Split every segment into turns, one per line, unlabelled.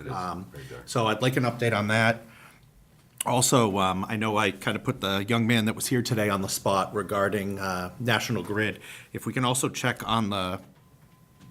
It is
Um,
right there.
So I'd like an update on that. Also, um, I know I kind of put the young man that was here today on the spot regarding uh, National Grid. If we can also check on the,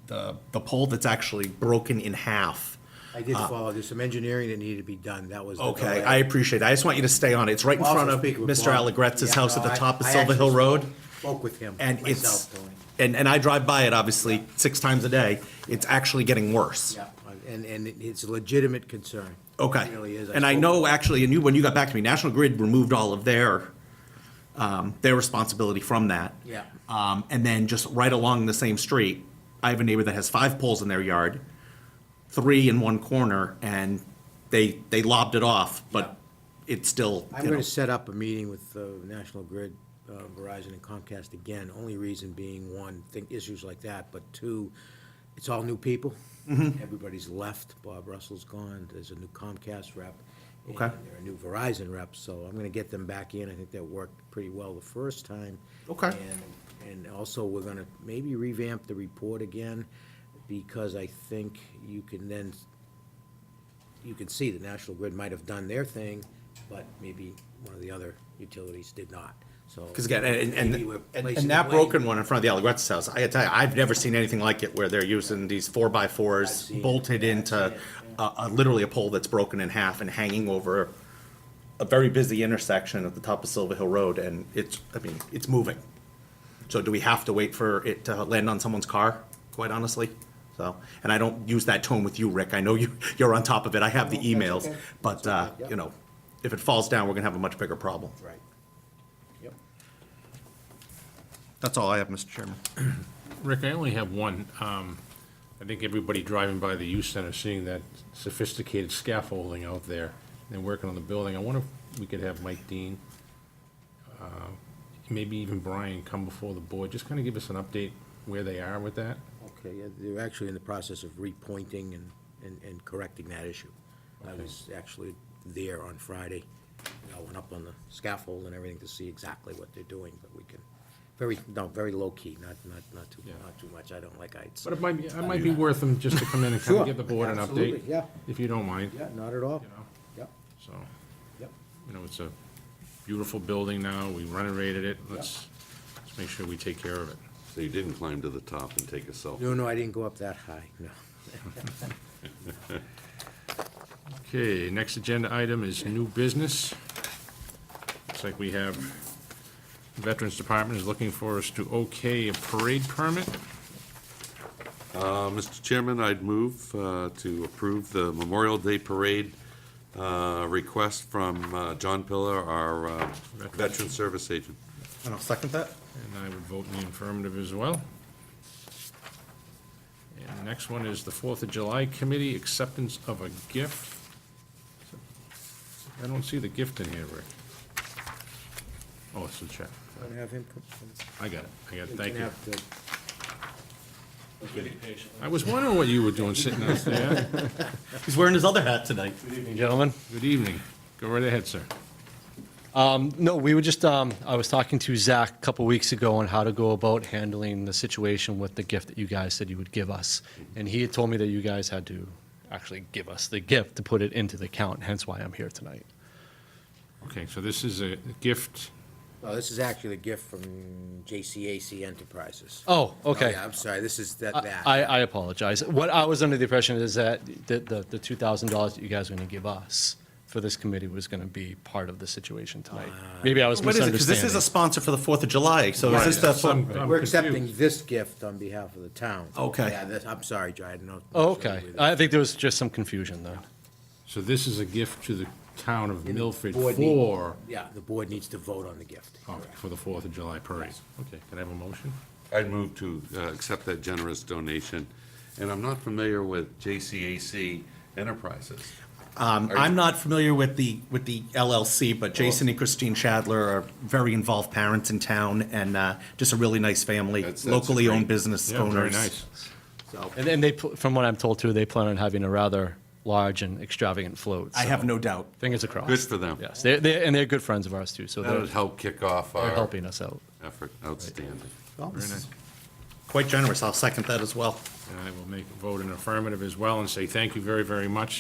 the the pole that's actually broken in half.
I did follow, there's some engineering that needed to be done, that was. the
Uh, Okay,
delay.
Uh, I appreciate it. I just want you to stay on it. It's right in
Also
front of
speak with
Mr.
Bob.
Allegretta's
Yeah,
house at
no,
the
I-
top of
I
Silver
actually
Hill Road.
Spoke with him,
And it's,
myself, Tony.
and, and I drive by it obviously six times a day. It's actually getting worse.
Yeah, and, and it's a legitimate concern.
Okay.
It really is.
And I
spoke
know
with him.
actually, and you, when you got back to me, National Grid removed all of their, um, their responsibility from that.
Yeah.
Um, and then just right along the same street, I have a neighbor that has five poles in their yard, three in one corner, and they, they lobbed it off, but it's still,
I'm
you know,
gonna set up a meeting with uh, National Grid, uh, Verizon and Comcast again, only reason being, one, think issues like that, but two, it's all new people.
Mm-hmm.
Everybody's left, Bob Russell's gone, there's a new Comcast rep.
Okay.
And there are new Verizon reps, so I'm gonna get them back in, I think that worked pretty well the first time.
Okay.
And, and also, we're gonna maybe revamp the report again, because I think you can then you can see that National Grid might have done their thing, but maybe one of the other utilities did not, so.
Because again, and, and,
Maybe we're
and- and,
placing
that
the blame.
broken one in front of the Allegretta's house, I gotta tell you, I've never seen anything like it where they're using these four by
I've
fours
seen it.
bolted
Yeah, I've
into
seen it,
a, a, literally a pole that's broken in half and hanging over a very busy intersection at the top of Silver Hill Road, and it's, I mean, it's moving. So do we have to wait for it to land on someone's car, quite honestly? So, and I don't use that tone with you, Rick, I know you, you're on top of it, I have the emails,
okay.
but, uh, you know, if it falls down, we're gonna have a much bigger problem.
Right. Yep.
That's all I have, Mr. Chairman.
Rick, I only have one. Um, I think everybody driving by the youth center, seeing that sophisticated scaffolding out there and working on the building, I wonder if we could have Mike Dean, uh, maybe even Brian come before the board, just kind of give us an update where they are with that.
Okay, yeah, they're actually in the process of repointing and, and, and correcting that issue. I was actually there on Friday, I went up on the scaffold and everything to see exactly what they're doing, but we can, very, no, very low-key, not, not, not too,
Yeah.
not too much, I don't like heights.
But it might, it might be worth them just to come in and kind
Sure,
of give the board an
absolutely,
update.
yeah.
If you don't mind.
Yeah, not at all.
You know,
Yep,
so,
yep.
you know, it's a beautiful building now. We renovated it. Let's, let's make sure we take care of it.
So you didn't climb to the top and take a selfie.
No, no, I didn't go up that high, no.
Okay, next agenda item is new business. Looks like we have Veterans Department is looking for us to okay a parade permit.
Uh, Mr. Chairman, I'd move uh, to approve the Memorial Day Parade uh, request from uh, John Pillar, our uh, Veteran Service Agent.
And I'll second that.
And I would vote in the affirmative as well. And the next one is the Fourth of July Committee Acceptance of a Gift. I don't see the gift in here, Rick. Oh, it's the check.
Want to have him come?
I got it, I got it,
We
thank
can
you.
have the-
I was wondering what you were doing sitting out there.
He's wearing his other hat tonight.
Gentlemen,
Good evening. Go right ahead, sir.
no, we were just, um, I was talking to Zach a couple weeks ago on how to go about handling the situation with the gift that you guys said you would give us. And he had told me that you guys had to actually give us the gift to put it into the account, hence why I'm here tonight.
Okay, so this is a gift
Oh, this is actually a gift from JCAC Enterprises.
Oh, okay.
yeah, I'm sorry, this is that,
I,
that.
I I apologize. What I was under the impression is that the, the, the two thousand dollars that you guys were gonna give us for this committee was gonna be part of the situation tonight. Maybe I was
Uh, What is it? Because this is a
misunderstanding.
sponsor for the Fourth of July, so is this the?
Some-
fun-
I'm
We're
confused.
accepting this gift on behalf of the town.
Okay.
Yeah, this, I'm sorry, Joe, I didn't know.
Oh, okay. I think there was just some confusion then.
So this is a gift to the town of Milford
Board meeting.
for,
Yeah, the board needs to vote on the gift.
oh, for the Fourth of July parade. Okay, can I have a motion?
I'd move to uh, accept that generous donation, and I'm not familiar with JCAC Enterprises.
Um, I'm not familiar with the, with the LLC, but Jason and Christine Shadler are very involved parents in town and uh, just a really nice family,
That's- that's
locally owned
great.
business
Yeah,
owners.
very nice.
And then they, pl- from what I'm told too, they plan on having a rather large and extravagant float.
I
so
have no doubt.
Fingers acrossed.
Good for them.
Yes, they're, they're, and they're good friends of ours too, so
That
they're,
would help kick off
they're
our
helping us out.
effort. Outstanding.
Very nice.
Quite generous. I'll second that as well.
And I will make, vote in affirmative as well and say thank you very, very much